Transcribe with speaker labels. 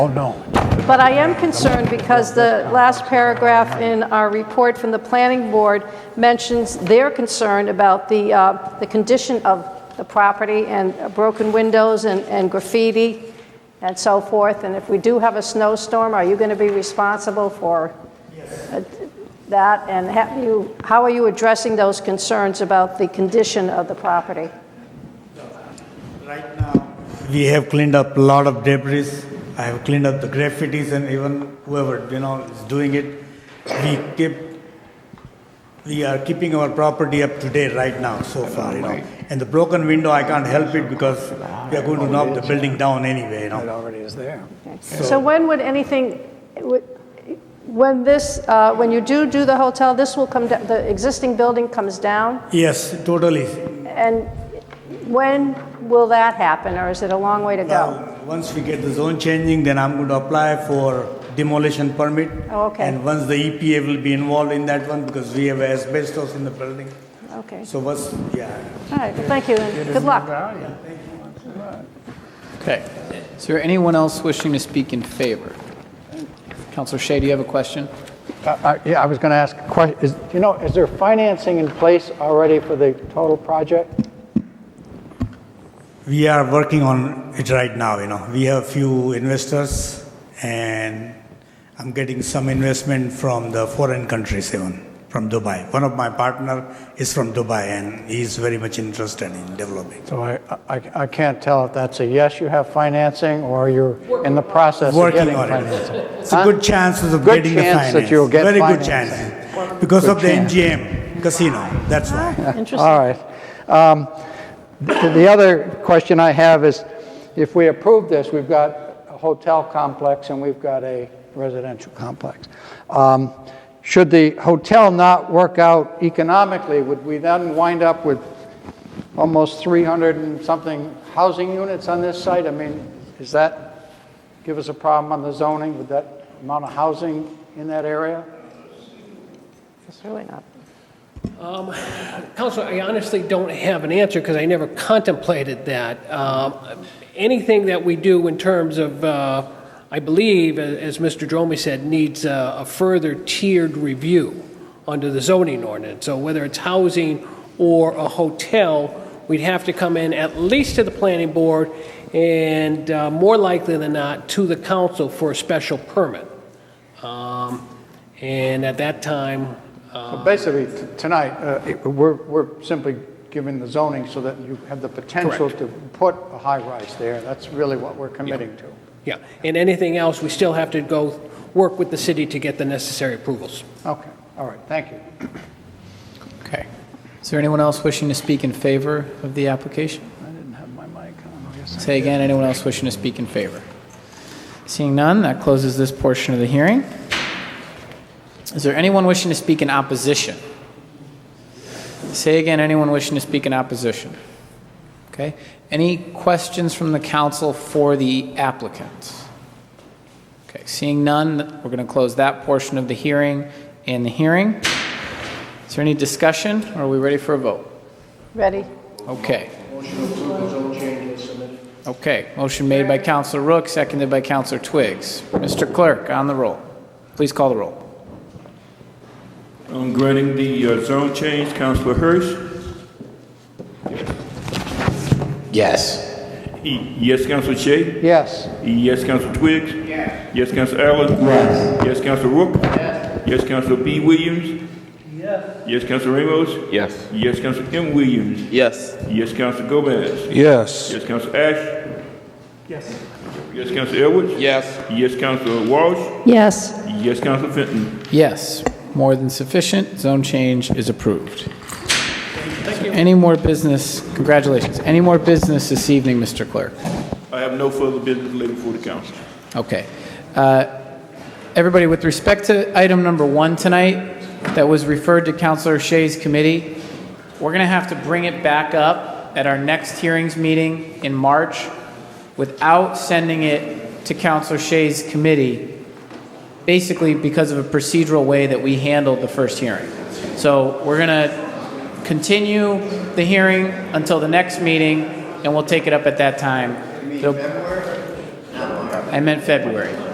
Speaker 1: Oh, no.
Speaker 2: But I am concerned because the last paragraph in our report from the planning board mentions their concern about the, uh, the condition of the property and broken windows and and graffiti and so forth. And if we do have a snowstorm, are you going to be responsible for uh, that? And have you, how are you addressing those concerns about the condition of the property?
Speaker 3: Right now, we have cleaned up a lot of debris. I have cleaned up the graffitis and even whoever, you know, is doing it. We keep, we are keeping our property up to date right now so far, you know. And the broken window, I can't help it because we are going to knock the building down anyway, you
Speaker 1: It
Speaker 3: know.
Speaker 1: already is there.
Speaker 2: So when would anything, when this, uh, when you do do the hotel, this will come, da- the existing building comes down?
Speaker 3: Yes, totally.
Speaker 2: And when will that happen, or is it a long way to go?
Speaker 3: Now, Uh, once we get the zone changing, then I'm going to apply for demolition permit.
Speaker 2: Oh, okay.
Speaker 3: And once the EPA will be involved in that one because we have asbestos in the building.
Speaker 2: Okay,
Speaker 3: So what's, yeah.
Speaker 2: all right, well, thank you, and good luck.
Speaker 4: Okay. Is there anyone else wishing to speak in favor? Counselor Shea, do you have a question?
Speaker 1: Uh, I- Yeah, I was going to ask, a que- is- you know, is there financing in place already for the total project?
Speaker 3: We are working on it right now, you know. We have a few investors and I'm getting some investment from the foreign countries even, from Dubai. One of my partner is from Dubai and he's very much interested in developing.
Speaker 1: So I, I I can't tell if that's a yes, you have financing, or you're in the process of
Speaker 3: Working
Speaker 1: getting
Speaker 3: on
Speaker 1: financing.
Speaker 3: it. It's
Speaker 1: Huh?
Speaker 3: a good chance of
Speaker 1: Good
Speaker 3: getting the
Speaker 1: chance
Speaker 3: finance.
Speaker 1: that you'll get
Speaker 3: Very good
Speaker 1: financing.
Speaker 3: chance. Because
Speaker 1: Good
Speaker 3: of the
Speaker 1: chance.
Speaker 3: MGM casino, that's why.
Speaker 2: Interesting.
Speaker 1: All right. Um, The the other question I have is, if we approve this, we've got a hotel complex and we've got a residential complex. Um, Should the hotel not work out economically, would we then wind up with almost 300 and something housing units on this site? I mean, is that, give us a problem on the zoning with that amount of housing in that area?
Speaker 2: It's really not.
Speaker 5: Counselor, I honestly don't have an answer because I never contemplated that. Um, Anything that we do in terms of, uh, I believe, a- as Mr. Dromey said, needs a a further tiered review under the zoning ordinance. So whether it's housing or a hotel, we'd have to come in at least to the planning board and uh, more likely than not, to the council for a special permit. Um, And at that time,
Speaker 1: Well, Basically, t- tonight, uh, it- we're we're simply giving the zoning so that you have the potential to put a high-rise there. That's really what we're committing to.
Speaker 5: Yeah, and anything else, we still have to go work with the city to get the necessary approvals.
Speaker 1: Okay, all right, thank you.
Speaker 4: Okay. Is there anyone else wishing to speak in favor of the application?
Speaker 1: I didn't have my mic on. Yes.
Speaker 4: Say again, anyone else wishing to speak in favor? Seeing none, that closes this portion of the hearing. Is there anyone wishing to speak in opposition? Say again, anyone wishing to speak in opposition? Okay. Any questions from the council for the applicant? Okay, seeing none, we're going to close that portion of the hearing and the hearing. Is there any discussion, or are we ready for a vote?
Speaker 2: Ready?
Speaker 4: Okay. Okay, motion made by Counselor Rook, seconded by Counselor Twigs. Mr. Clerk, on the roll. Please call the roll.
Speaker 6: On granting the uh, zone change, Councilor Hirsch?
Speaker 7: Yes.
Speaker 6: E- Yes, Councilor Shay?
Speaker 1: Yes,
Speaker 6: E- Yes, Councilor Twigs? Yes. Yes, Councilor Allen?
Speaker 7: Yes.
Speaker 6: Yes, Councilor Rook? Yes. Yes, Councilor B. Williams? Yes. Yes, Councilor Ramos?
Speaker 7: Yes.
Speaker 6: Yes, Councilor M. Williams?
Speaker 7: Yes.
Speaker 6: Yes, Councilor Gomez?
Speaker 8: Yes.
Speaker 6: Yes, Councilor Ash? Yes. Yes, Councilor Edwards?
Speaker 7: Yes.
Speaker 6: Yes, Councilor Walsh?
Speaker 2: Yes.
Speaker 6: Yes, Councilor Fenton?
Speaker 4: Yes, more than sufficient, zone change is approved. Any more business, congratulations, any more business this evening, Mr. Clerk?
Speaker 6: I have no further business laid before the council.
Speaker 4: Okay. Uh, Everybody, with respect to item number one tonight, that was referred to Counselor Shea's committee, we're going to have to bring it back up at our next hearings meeting in March without sending it to Counselor Shea's committee, basically because of a procedural way that we handled the first hearing. So we're going to continue the hearing until the next meeting, and we'll take it up at that time. It'll- I meant February.